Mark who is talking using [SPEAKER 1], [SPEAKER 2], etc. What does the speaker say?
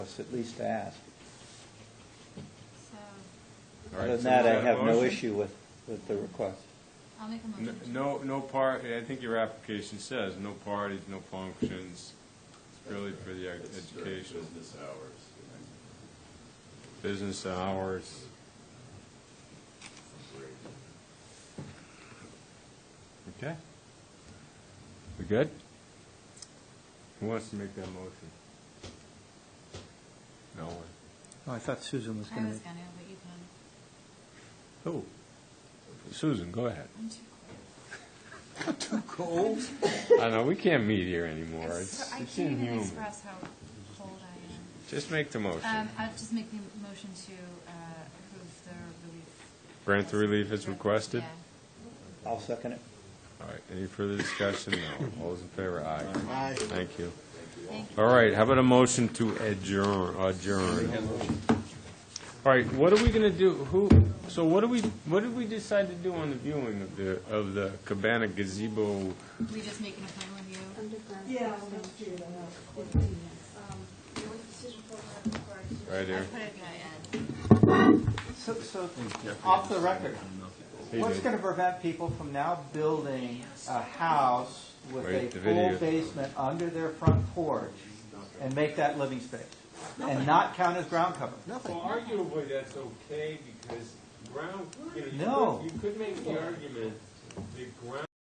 [SPEAKER 1] us at least to ask.
[SPEAKER 2] So,
[SPEAKER 3] All right,
[SPEAKER 1] Other than
[SPEAKER 3] so is
[SPEAKER 1] that, I
[SPEAKER 3] a
[SPEAKER 1] have no
[SPEAKER 3] motion?
[SPEAKER 1] issue with, with the request.
[SPEAKER 2] I'll make a
[SPEAKER 3] N-
[SPEAKER 2] motion. to-
[SPEAKER 3] No, no part, I think your application says, no parties, no functions, It's really for the ed-
[SPEAKER 4] It's during
[SPEAKER 3] education,
[SPEAKER 4] Business hours.
[SPEAKER 3] business hours. Okay. We good? Who wants to make that motion? No one.
[SPEAKER 5] Oh, I thought Susan was
[SPEAKER 2] I
[SPEAKER 5] going
[SPEAKER 2] was
[SPEAKER 5] to.
[SPEAKER 2] gonna, but you can,
[SPEAKER 3] Who? Susan, go ahead.
[SPEAKER 2] I'm too
[SPEAKER 3] I know, we can't meet here
[SPEAKER 2] cold.
[SPEAKER 3] anymore.
[SPEAKER 2] It's
[SPEAKER 3] It's
[SPEAKER 2] so- I
[SPEAKER 3] it's
[SPEAKER 2] can't even
[SPEAKER 3] inhuman.
[SPEAKER 2] express how cold I
[SPEAKER 3] Just make the
[SPEAKER 2] am.
[SPEAKER 3] motion.
[SPEAKER 2] Um, I'll just make the motion to uh, approve the relief.
[SPEAKER 3] Grant the relief as requested?
[SPEAKER 2] Yeah.
[SPEAKER 1] I'll second it.
[SPEAKER 3] All right, any further discussion? No. All those in favor, aye.
[SPEAKER 6] Aye.
[SPEAKER 3] Thank you.
[SPEAKER 2] Thank you.
[SPEAKER 3] All right, how about a motion to adjourn, adjourn? All right, what are we gonna do, who, so what do we, what did we decide to do on the viewing of the, of the Cabana gazebo?
[SPEAKER 2] We just make an appointment with you.
[SPEAKER 7] Yeah, that's true.
[SPEAKER 3] Right
[SPEAKER 2] I
[SPEAKER 3] here.
[SPEAKER 2] put it in my ad.
[SPEAKER 5] So, so, off the record, what's going to prevent people from now building a house with
[SPEAKER 3] Wait,
[SPEAKER 5] a
[SPEAKER 3] the
[SPEAKER 5] full
[SPEAKER 3] video.
[SPEAKER 5] basement under their front porch and make that living space? And not count as ground cover?
[SPEAKER 6] Nothing.
[SPEAKER 3] arguably, that's okay, because ground,
[SPEAKER 5] you No. could-
[SPEAKER 3] could make the argument that ground